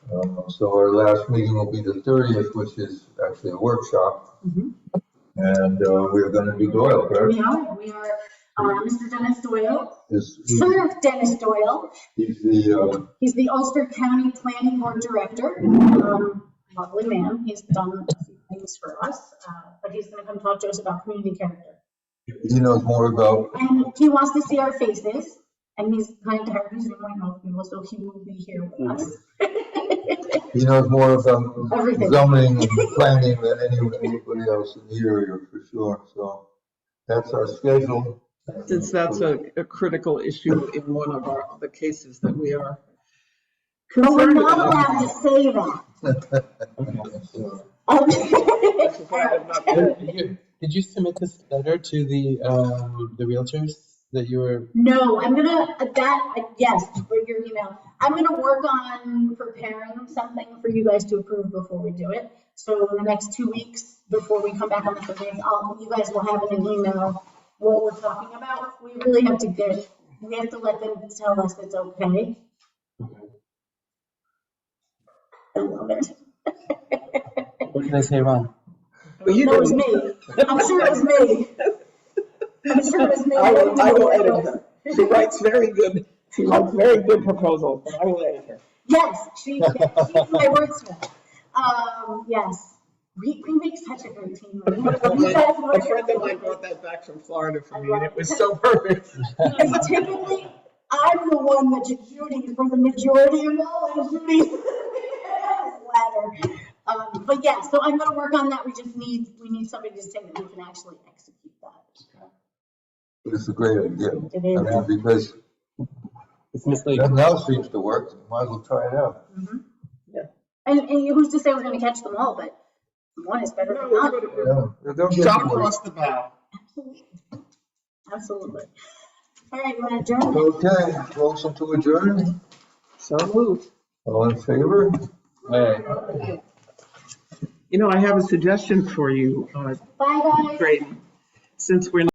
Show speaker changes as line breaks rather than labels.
Uh, So our last meeting will be the thirtieth, which is actually a workshop.
Mhm.
And uh, we're gonna do Doyle, correct?
We are, we are, uh, Mr. Dennis Doyle,
Is,
son of Dennis Doyle.
he's the, uh,
He's the Ulster County Planning Board Director. Um, Lovely man. He's done a few things for us, uh, but he's going to come talk to us about community character.
he knows more about,
And he wants to see our faces and he's kind of tired of Zoom right now, people, so he will be here with us.
he knows more about
Everything.
zoning and planning than anyone- anybody else in the area for sure, so. That's our schedule.
Since that's a, a critical issue in one of our, the cases that we are
But we're
concerned
not
about.
allowed to say that.
So,
Which is why I'm not-
Did you- did you submit this letter to the, um, the realtors that you were,
No, I'm gonna, that, yes, for your email. I'm gonna work on preparing something for you guys to approve before we do it. So in the next two weeks, before we come back on the 15th, I'll, you guys will have in an email what we're talking about. We really have to get, we have to let them tell us it's okay. I love it.
what did I say wrong?
Well, you
No, it was
didn't.
me. I'm sure it was me. I'm sure it was me.
I will, I will edit her. She writes very good, she writes very good proposals, and I will edit her.
Yes, she, she's my wordsmith. Um, yes, we, we make such a great team. You guys want
A
to-
friend of mine brought that back from Florida for me, and it was so perfect.
Because typically, I'm the one that's shooting for the majority of all the shooting. Ladder. Um, but yeah, so I'm gonna work on that. We just need, we need somebody to say that we can actually execute that.
It's a great idea. I
It
mean,
is.
because
It's misleading.
nothing else seems to work, might as well try it out.
Mhm.
Yeah.
And, and who's to say we're gonna catch them all, but one is better than none.
Yeah, don't get
Shot
me wrong.
across the bow.
Absolutely. All right, you wanna adjourn?
Okay, motion to adjourn,
So moved.
all in favor?
Oh,
Aye.
You know, I have a suggestion for you, uh,
Bye, guys.
Graydon. Since we're